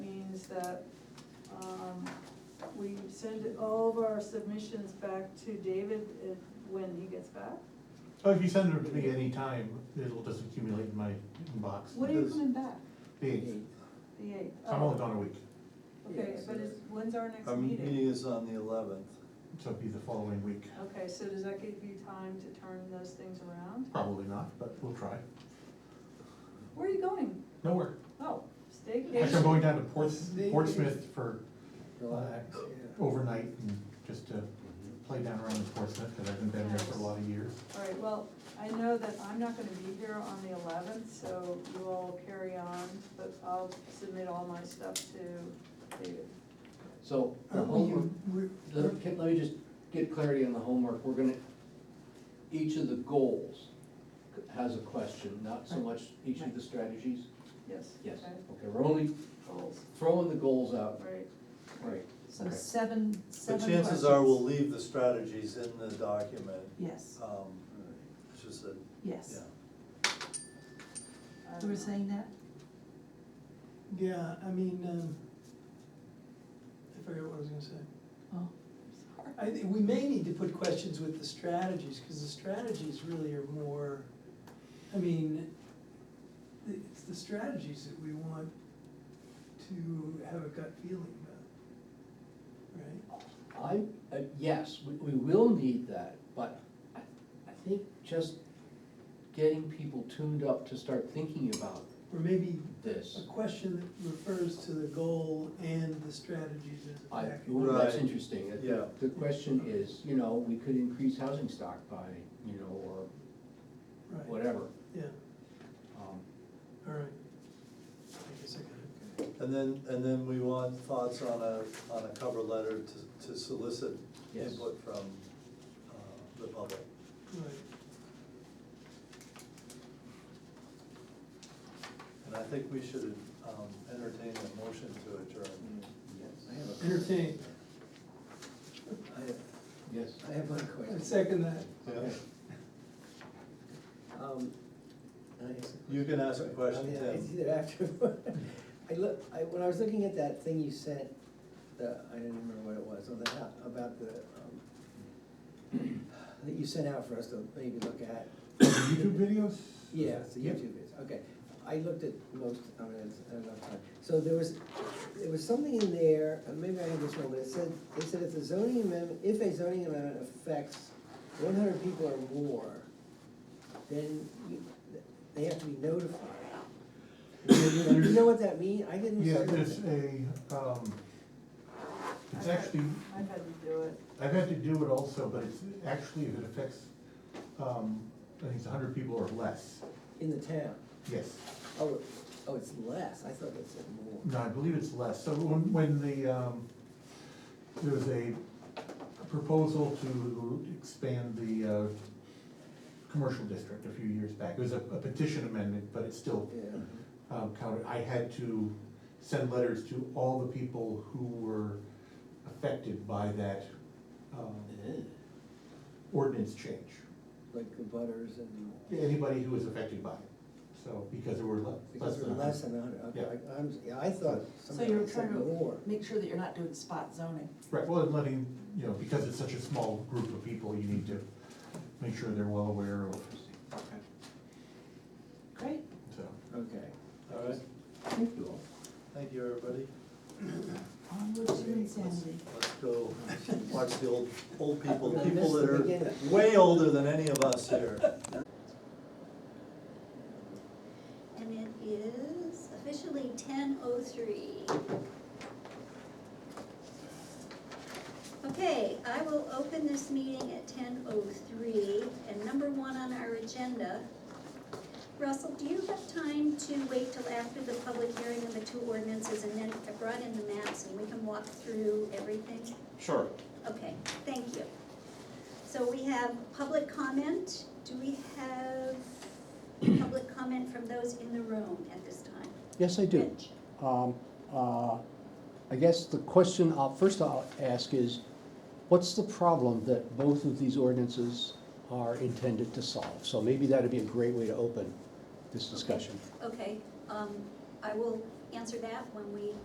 that um, we send all of our submissions back to David uh, when he gets back? Oh, if you send them to me anytime, it'll just accumulate in my inbox. When are you Because coming back? the eighth. The eighth? Oh. Oh, I'm only gone a week, Okay, but it's, when's our next Our meeting? meeting is on the eleventh. so it'll be the following week. Okay, so does that give you time to turn those things around? Probably not, but we'll try. Where are you going? Nowhere. Oh, Actually, I'm staycation. going down to Ports, Portsmouth for uh, Relax. overnight and just to play down around in Portsmouth, because I've been down there for a lot of years. All right, well, I know that I'm not gonna be here on the eleventh, so you all carry on, but I'll submit all my stuff to David. So, our What will homework, you, re- let me let me just get clarity on the homework, we're gonna, each of the goals has a question, not so much each of the strategies? Yes? Yes, okay, okay, we're only Goals, throwing the goals out, right. right, so Okay. seven, The seven questions. chances are we'll leave the strategies in the document, Yes, um, it's just that, yeah. yes, I you don't were know. saying that? Yeah, I mean, um, I forgot what I was gonna say. Oh, I think we may need to put questions with the strategies, cause the strategies really are more, I mean, the- it's the strategies that we want to have a gut feeling about, right? I, uh, yes, we, we will need that, but I, I think just getting people tuned up to start thinking about Or maybe a this, question that refers to the goal and the strategies as a I, package. ooh, that's Right. interesting. The- Yeah. The question is, you know, we could increase housing stock by, you know, or Right, whatever. Yeah, Um, all right. I guess I got it, okay. And then, and then we want thoughts on a, on a cover letter to, to solicit Yes. input from, uh, the public. Right. And I think we should, um, entertain a motion to adjourn. I have a- Entertain. Yes. I have one I question. second that. Okay. Um, can I ask a You can ask a question, question? I mean, Oh, I- It's Tim. either after. I look, I, when I was looking at that thing you sent, the, I don't even remember what it was, on the, ho- about the, um, that you sent out for us to maybe look at. YouTube videos? Yeah, it's the Yep. YouTube is, okay. I looked at most, I mean, it's, I don't know, time. so there was, there was something in there, and maybe I have this wrong, but it said, it said if the zoning amendment, if a zoning amendment affects one hundred people or more, then you, they have to be notified. Do you know what that mean? I didn't. Yeah, see what it's that- a, um, it's I've had- actually, I've had to do it. I've had to do it also, but it's actually, if it affects, um, I think it's hundred people or less, In the town. yes. Oh, oh, it's less. I thought it said more. No, I believe it's less, so when, when the, um, there was a proposal to expand the, uh, commercial district a few years back, it was a a petition amendment, but it still, Yeah. um, counted, I had to send letters to all the people who were affected by that, um, ordinance change, Like the butters and. anybody who was affected by it, so, because there were le- less Because than. a we're hundred. less than a hundred, okay, Yeah. I- I'm, yeah, I thought so somebody you're said trying more. to make sure that you're not doing spot zoning. Right, well, and letting, you know, because it's such a small group of people, you need to make sure they're well aware of, Great. so. Okay, All right, Thank you all. thank you, everybody. Onward to insanity. Let's go watch the old, old people, We're gonna people miss that the are beginning. way older than any of us here. And it is officially ten oh three. Okay, I will open this meeting at ten oh three, and number one on our agenda. Russell, do you have time to wait till after the public hearing of the two ordinances, and then I brought in the maps, and we can walk through everything? Sure. Okay, thank you. So we have public comment. Do we have public comment from those in the room at this time? Yes, I do. Rich? Um, uh, I guess the question, I'll- first I'll ask is, what's the problem that both of these ordinances are intended to solve? So maybe that'd be a great way to open this discussion. Okay, um, I will answer that when we